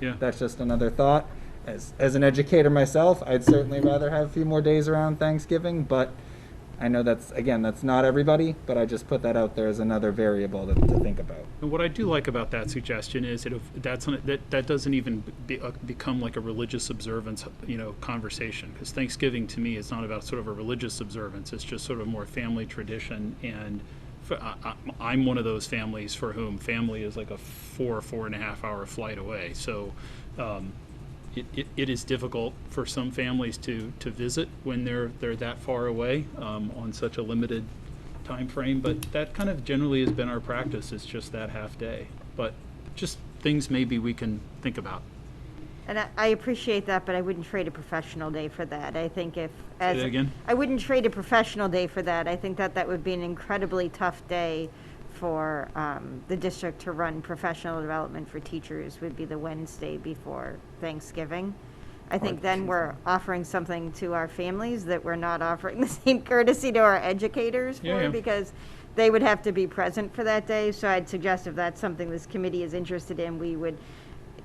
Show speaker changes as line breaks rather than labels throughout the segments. Yeah.
That's just another thought. As, as an educator myself, I'd certainly rather have a few more days around Thanksgiving, but I know that's, again, that's not everybody, but I just put that out there as another variable to, to think about.
And what I do like about that suggestion is that if that's an, that that doesn't even be, uh, become like a religious observance, you know, conversation. Because Thanksgiving to me is not about sort of a religious observance. It's just sort of more family tradition. And for, I, I, am one of those families for whom family is like a four four and a half hour flight away. So. Um, it, it, it is difficult for some families to, to visit when they're they're that far away um, on such a limited time frame, but that kind of generally has been our practice. It's just that half day. But just things maybe we can think about.
And I, I appreciate that, but I wouldn't trade a professional day for that. I think if, as.
that again?
I wouldn't trade a professional day for that. I think that that would be an incredibly tough day for um, the district to run professional development for teachers would be the Wednesday before Thanksgiving. I think then we're offering something to our families that we're not offering the same courtesy to our educators
Yeah, yeah.
for because they would have to be present for that day. So I'd suggest if that's something this committee is interested in, we would,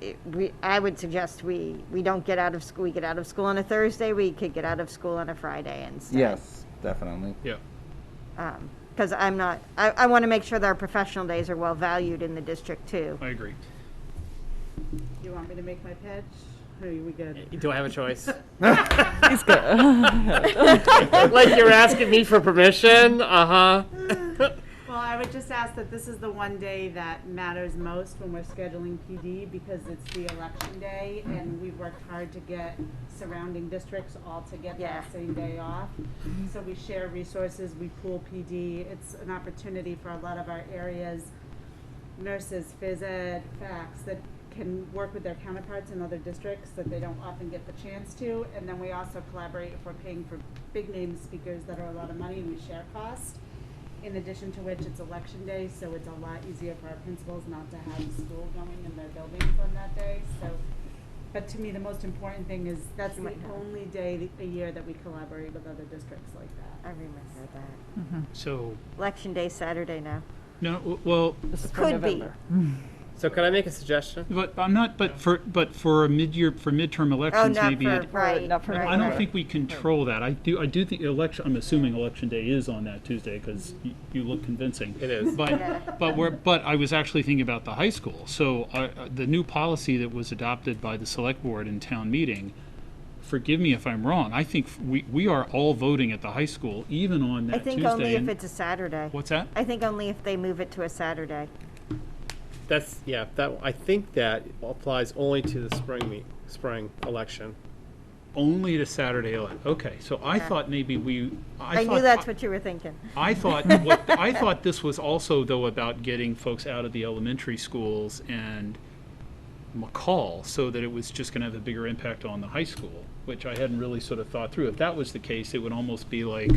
it- we, I would suggest we, we don't get out of school, we get out of school on a Thursday, we could get out of school on a Friday instead.
Yes, definitely.
Yeah.
Because I'm not, I, I want to make sure that our professional days are well valued in the district too.
I agree.
You want me to make my pitch? Or are we good?
Do I have a choice? like you're asking me for permission? Uh huh.
Well, I would just ask that this is the one day that matters most when we're scheduling PD because it's the election day and we've worked hard to get surrounding districts all to get
Yeah.
that same day off. So we share resources, we pool PD. It's an opportunity for a lot of our areas, nurses, phys ed, facts that can work with their counterparts in other districts that they don't often get the chance to. And then we also collaborate if we're paying for big name speakers that are a lot of money and we share cost. In addition to which, it's election day, so it's a lot easier for our principals not to have school going in their buildings on that day, so. But to me, the most important thing is that's the only day th- a year that we collaborate with other districts like
I
that.
remember that.
So,
Election day Saturday now.
no, w- well,
Could be.
So can I make a suggestion?
but I'm not, but for, but for a mid-year, for midterm
Oh,
elections,
not
maybe.
for,
it-
right,
not for
I
right.
don't think we control that. I do, I do think election, I'm assuming election day is on that Tuesday because you, you look convincing.
It is.
But, but we're, but I was actually thinking about the high school. So uh, uh, the new policy that was adopted by the select board in town meeting, forgive me if I'm wrong, I think we, we are all voting at the high school, even on
I
that Tuesday.
think only if
and-
it's a Saturday.
What's that?
I think only if they move it to a Saturday.
That's yeah. That I think that applies only to the spring meet, spring election.
Only the Saturday, ele- okay. So I thought maybe we, I
I
thought.
knew that's what you were thinking.
I thought what I thought this was also though about getting folks out of the elementary schools and McCall so that it was just going to have a bigger impact on the high school, which I hadn't really sort of thought through. If that was the case, it would almost be like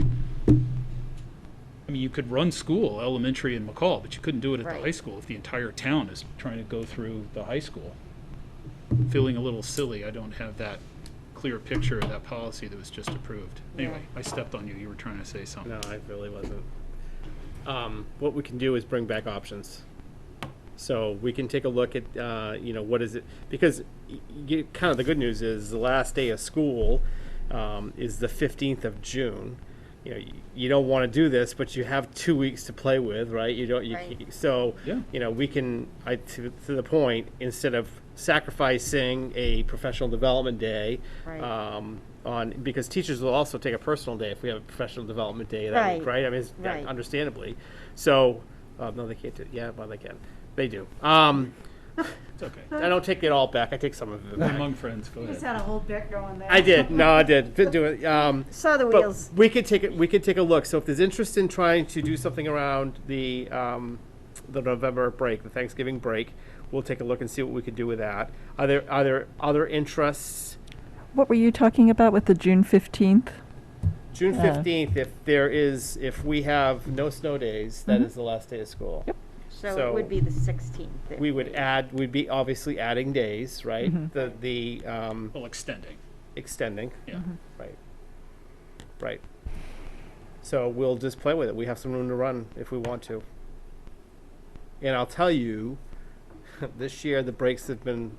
I mean, you could run school, elementary and McCall, but you couldn't do it at the
Right.
high school if the entire town is trying to go through the high school. Feeling a little silly, I don't have that clear picture of that policy that was just approved. Anyway, I stepped on you. You were trying to say something.
No, I really wasn't. Um, what we can do is bring back options. So we can take a look at, uh, you know, what is it, because y- you, kind of the good news is the last day of school, um, is the fifteenth of June. You know, you, you don't want to do this, but you have two weeks to play with, right? You don't, you,
Right.
c- so,
Yeah.
you know, we can, I, to, to the point, instead of sacrificing a professional development day,
Right.
um, on, because teachers will also take a personal day if we have a professional development day that week,
Right.
right? I mean, it's- yeah,
Right.
understandably. So, uh, no, they can't do. Yeah, well, they can. They do. Um,
It's okay.
I don't take it all back. I take some of it back.
Among friends, go
Just
ahead.
had a whole bit going there.
I did. No, I did. Didn't do it. Um,
Saw the
but
wheels.
we could take it. We could take a look. So, if there's interest in trying to do something around the um, the November break, the Thanksgiving break, we'll take a look and see what we could do with that. Are there are there other interests?
What were you talking about with the June 15th?
June
Yeah.
fifteenth, if there is, if we have no snow days, that is the last day of school.
Mm-hmm. Yep.
So it
So-
would be the 16th. It
We would add, we'd be obviously adding days, right?
Mm-hmm.
The the um,
Well, extending,
extending,
yeah.
right? Right. So we'll just play with it. We have some room to run if we want to. And I'll tell you, this year the breaks have been